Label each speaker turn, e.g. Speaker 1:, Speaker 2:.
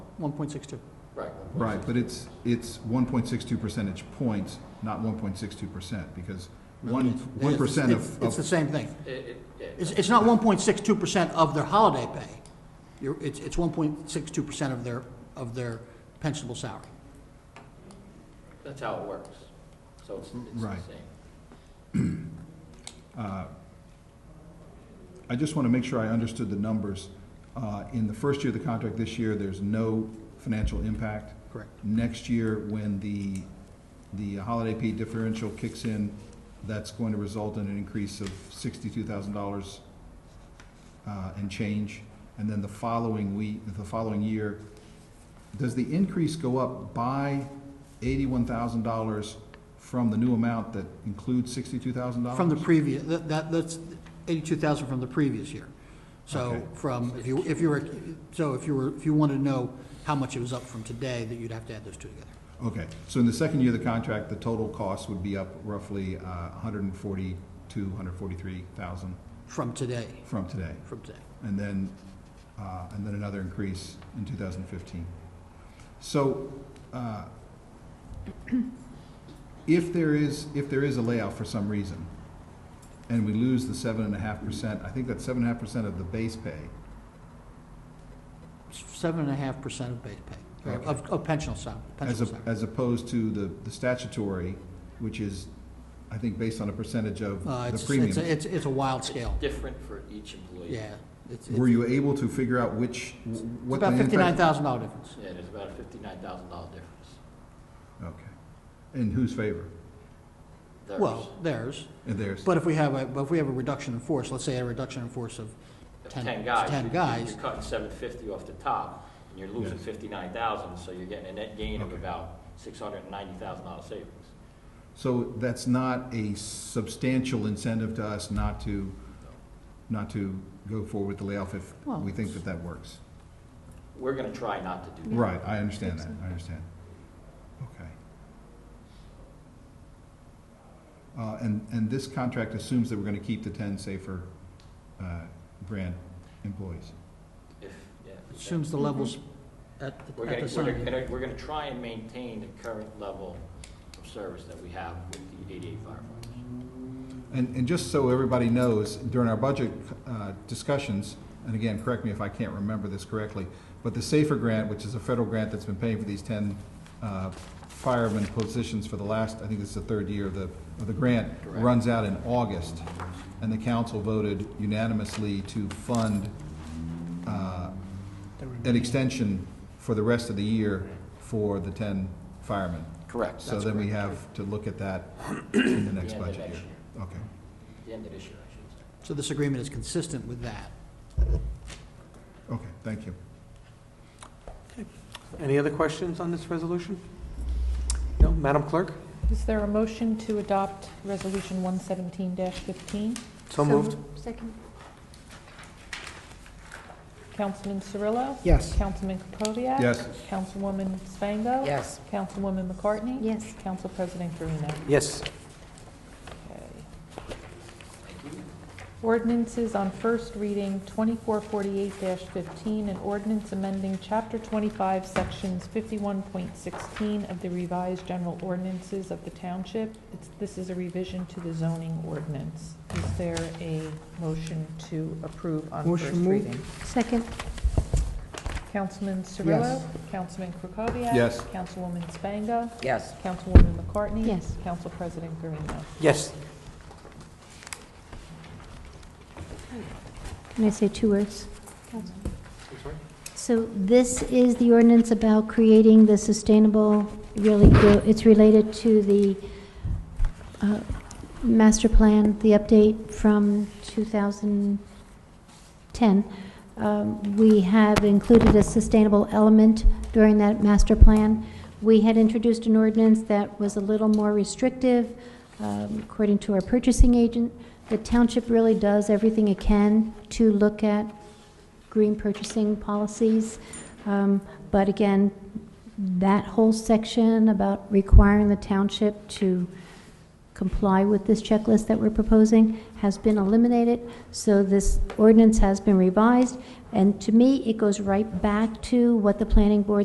Speaker 1: one point six two.
Speaker 2: Right.
Speaker 3: Right, but it's, it's one point six two percentage points, not one point six two percent, because one, one percent of,
Speaker 1: It's the
Speaker 3: of,
Speaker 1: same thing.
Speaker 2: It, it, it-
Speaker 1: It's, it's not one point six two percent of their holiday pay. You're, it's, it's one point six two percent of their, of their pensionable salary.
Speaker 2: that's how it works. So it's, it's the
Speaker 3: Right.
Speaker 2: same.
Speaker 3: I just want to make sure I understood the numbers. Uh, in the first year of the contract this year, there's no financial impact.
Speaker 1: Correct.
Speaker 3: Next year, when the, the holiday pay differential kicks in, that's going to result in an increase of sixty-two thousand dollars uh, and change. And then the following week, the following year, does the increase go up by eighty-one thousand dollars from the new amount that includes sixty-two thousand dollars?
Speaker 1: From the previous, that, that- that's eighty-two thousand from the previous year. So
Speaker 3: Okay.
Speaker 1: from, if you, if you were, so if you were, if you wanted to know how much it was up from today, that you'd have to add those two together.
Speaker 3: Okay, so in the second year of the contract, the total cost would be up roughly uh, $142,000, $143,000
Speaker 1: From today,
Speaker 3: from today,
Speaker 1: from today.
Speaker 3: and then, uh, and then another increase in 2015. So uh, if there is, if there is a layoff for some reason, and we lose the 7.5%, I think that's 7.5% of the base pay,
Speaker 1: Seven and a half percent of base pay,
Speaker 3: Okay.
Speaker 1: of, of pensionable salary,
Speaker 3: As, a-
Speaker 1: pensionable salary.
Speaker 3: as opposed to the, the statutory, which is, I think, based on a percentage of
Speaker 1: Uh, it's,
Speaker 3: the
Speaker 1: it's, a-
Speaker 3: premium.
Speaker 1: it's, it's a wild scale,
Speaker 2: Different for each employee.
Speaker 1: yeah. It's
Speaker 3: Were
Speaker 1: it's
Speaker 3: you able to figure out which, what the
Speaker 1: About
Speaker 3: impact?
Speaker 1: fifty-nine thousand dollar difference.
Speaker 2: Yeah, there's about a fifty-nine thousand dollar difference.
Speaker 3: Okay. In whose favor?
Speaker 2: There's-
Speaker 1: Well, theirs,
Speaker 3: In theirs?
Speaker 1: but if we have a, but if we have a reduction in force, let's say a reduction in force of
Speaker 2: if
Speaker 1: 10
Speaker 2: Ten guys.
Speaker 1: ten
Speaker 2: you- you-
Speaker 1: guys.
Speaker 2: You're cutting seven fifty off the top, and you're losing
Speaker 3: Yes.
Speaker 2: fifty-nine thousand, so you're getting a net gain of
Speaker 3: Okay.
Speaker 2: about six hundred and ninety thousand dollar savings.
Speaker 3: So that's not a substantial incentive to us not to, not to go forward with the layoff if
Speaker 1: Well,
Speaker 3: we think that that works.
Speaker 2: We're gonna try not to do that.
Speaker 3: Right, I understand that, I understand. Okay. Uh, and, and this contract assumes that we're gonna keep the ten safer, uh, grant employees.
Speaker 2: If, yeah. if we can.
Speaker 1: assumes the levels at, the-
Speaker 2: Mm-hmm. We're
Speaker 1: at
Speaker 2: gonna,
Speaker 1: the
Speaker 2: we're
Speaker 1: sign.
Speaker 2: gonna, we're gonna try and maintain the current level of service that we have with the eighty-eight firefighters.
Speaker 3: And, and just so everybody knows, during our budget uh, discussions, and again, correct me if I can't remember this correctly, but the SAFER grant, which is a federal grant that's been paying for these 10 uh, fireman positions for the last, I think this is the third year of the, of the grant,
Speaker 2: Correct.
Speaker 3: runs out in August. And the council voted unanimously to fund uh, an extension for the rest of the year for the 10 firemen.
Speaker 2: Correct.
Speaker 3: So then we have to look at that in the next
Speaker 2: end of
Speaker 3: budget
Speaker 2: next
Speaker 3: year. Okay.
Speaker 2: The end of this year, I should say.
Speaker 1: So this agreement is consistent with that.
Speaker 3: Okay, thank you.
Speaker 4: Any other questions on this resolution? No, Madam Clerk?
Speaker 5: Is there a motion to adopt Resolution 117-15?
Speaker 4: So moved.
Speaker 6: Second.
Speaker 5: Councilman Cirillo?
Speaker 1: Yes.
Speaker 5: Councilman Krokoviac?
Speaker 3: Yes.
Speaker 5: Councilwoman Spango?
Speaker 7: Yes.
Speaker 5: Councilwoman McCartney?
Speaker 6: Yes.
Speaker 5: Council President Carino?
Speaker 4: Yes.
Speaker 5: Okay. Ordinances on first reading, 2448-15, an ordinance amending Chapter 25, Sections 51.16 of the revised general ordinances of the township. It's- This is a revision to the zoning ordinance. Is there a motion to approve on first
Speaker 7: Motion moved.
Speaker 5: reading?
Speaker 6: Second.
Speaker 5: Councilman Cirillo?
Speaker 7: Yes.
Speaker 5: Councilman Krokoviac?
Speaker 3: Yes.
Speaker 5: Councilwoman Spango?
Speaker 7: Yes.
Speaker 5: Councilwoman McCartney?
Speaker 6: Yes.
Speaker 5: Council President Garino.
Speaker 4: Yes.
Speaker 6: Can I say two words?
Speaker 4: I'm sorry?
Speaker 6: So this is the ordinance about creating the sustainable, really, go- it's related to the uh, master plan, the update from 2010. Um, We have included a sustainable element during that master plan. We had introduced an ordinance that was a little more restrictive, um, according to our purchasing agent. The township really does everything it can to look at green purchasing policies. Um, But again, that whole section about requiring the township to comply with this checklist that we're proposing has been eliminated. So this ordinance has been revised. And to me, it goes right back to what the planning board